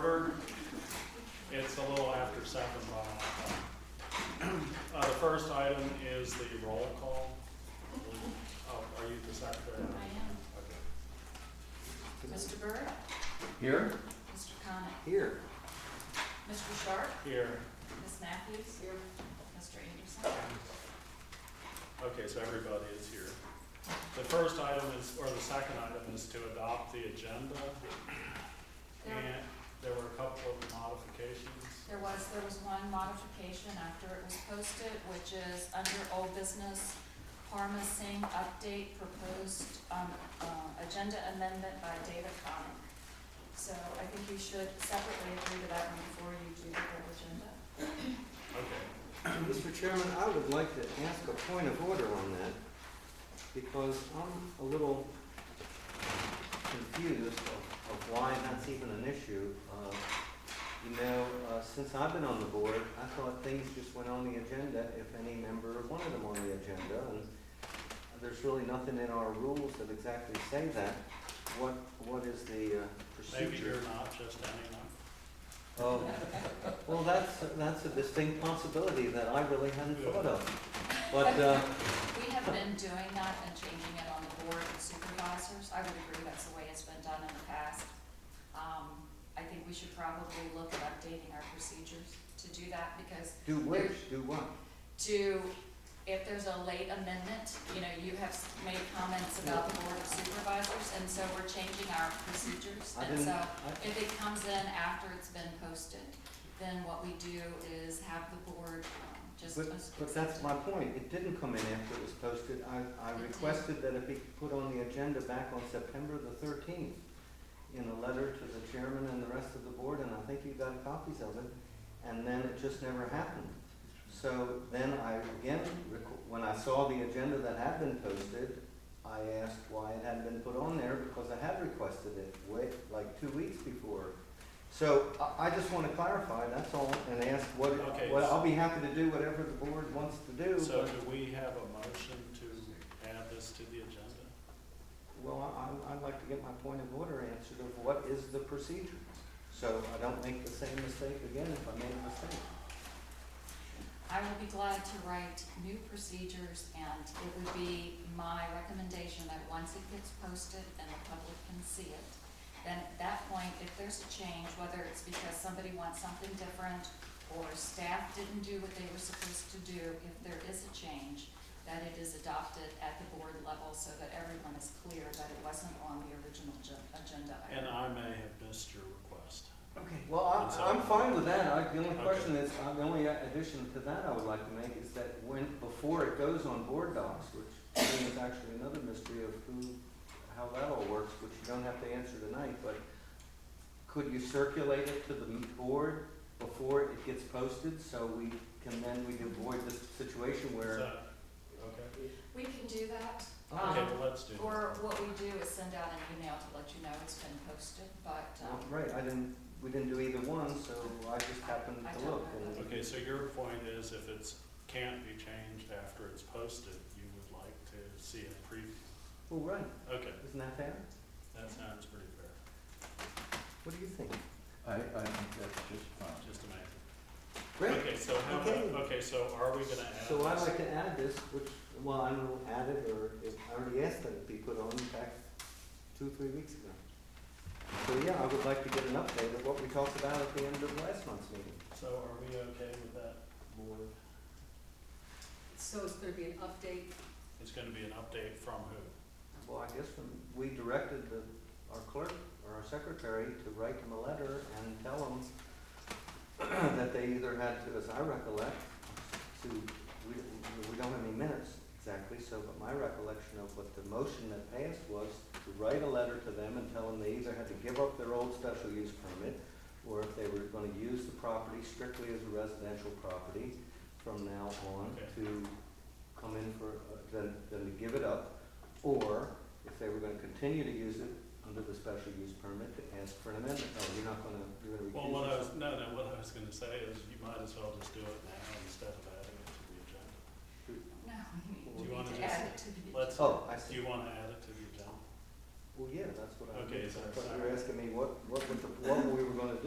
uh, item is the roll call. Oh, are you the secretary? I am. Okay. Mr. Burke, Here? Mr. Conick, Here. Mr. Sharp, Here, Ms. Matthews. Here. Mr. Anderson. okay, so everybody is here. The first item is, or the second item is to adopt the agenda. There, And there were a couple of modifications. there was, there was one modification after it was posted, which is under old business, Parma Singh update proposed, um, uh, agenda amendment by David Conick. So I think you should separately agree to that one before you do the whole agenda. Okay, Mr. Chairman, I would like to ask a point of order on that, because I'm a little confused of of why that's even an issue. Uh, You know, uh, since I've been on the board, I thought things just went on the agenda if any member wanted them on the agenda, and there's really nothing in our rules that exactly say that. What, what is the uh, procedure? maybe you're not, just anyone. Oh, well, that's, that's a distinct possibility that I really hadn't thought of. But, uh, We have been doing that and changing it on the board of supervisors. I would agree that's the way it's been done in the past. Um, I think we should probably look at updating our procedures to do that because do which, do what? to, if there's a late amendment, you know, you have s- made comments about the board of supervisors and so we're changing our procedures. I And didn't, so I, if it comes in after it's been posted, then what we do is have the board um, just. but, but that's my point. It didn't come in after it was posted. I, I requested that it be put on the agenda back on September the thirteenth in a letter to the chairman and the rest of the board, and I think you got copies of it, and then it just never happened. So then I, again, requ- when I saw the agenda that had been posted, I asked why it hadn't been put on there, because I had requested it way, like two weeks before. So I, I just want to clarify, that's all, and ask what, Okay. well, I'll be happy to do whatever the board wants to do, So but, do we have a motion to add this to the agenda? well, I, I'd like to get my point of order answered of what is the procedure? So I don't make the same mistake again if I made a mistake. I will be glad to write new procedures, and it would be my recommendation that once it gets posted and the public can see it, then at that point, if there's a change, whether it's because somebody wants something different or staff didn't do what they were supposed to do, if there is a change, that it is adopted at the board level so that everyone is clear that it wasn't on the original gen- agenda. And I may have missed your request. Okay. Well, I, I'm fine with that, I, the only Okay. question is, uh, the only addition to that I would like to make is that when, before it goes on board docs, which I think is actually another mystery of who, how that all works, which you don't have to answer tonight, but could you circulate it to the m- board before it gets posted, so we can then, we can avoid this situation Is where? that- Okay, We can do that. Okay. okay, well, let's do that. Or what we do is send out an email to let you know it's been posted, but, um, Well, Right, I didn't, we didn't do either one, so I just happened I to don't look, know. and, Okay, so your point is if it's, can't be changed after it's posted, you would like to see a preview? well, right, Okay, isn't that fair? that sounds pretty fair, What do you think? I, I think that's just fine. just amazing. Great. Okay, so how, Okay. okay, so are we gonna add? So I'd this? like to add this, which, well, I don't know, add it, or if, I already asked that it be put on back two, three weeks ago. So, yeah, I would like to get an update of what we talked about at the end of last month's meeting. So are we okay with that, board? So it's gonna be an update, It's gonna be an update from who? Well, I guess when we directed the, our clerk, or our secretary, to write them a letter and tell them that they either had to, as I recollect, to, we, we don't have any minutes exactly, so, but my recollection of what the motion that passed was to write a letter to them and tell them they either had to give up their old special use permit, or if they were gonna use the property strictly as a residential property from now on, Okay. to come in for, uh, then, then to give it up, or if they were gonna continue to use it under the special use permit, to ask for an amendment, no, you're not gonna, you're gonna Well, recuse what I was, yourself. no, no, what I was gonna say is you might as well just do it now instead of adding it to the agenda. no, you Do you need- wanna need to just- add it to the. Let's, Oh, I do see. you wanna add it to the agenda? Well, yeah, that's what I, Okay, I so- thought you were asking me what, what, would the- what we were gonna do.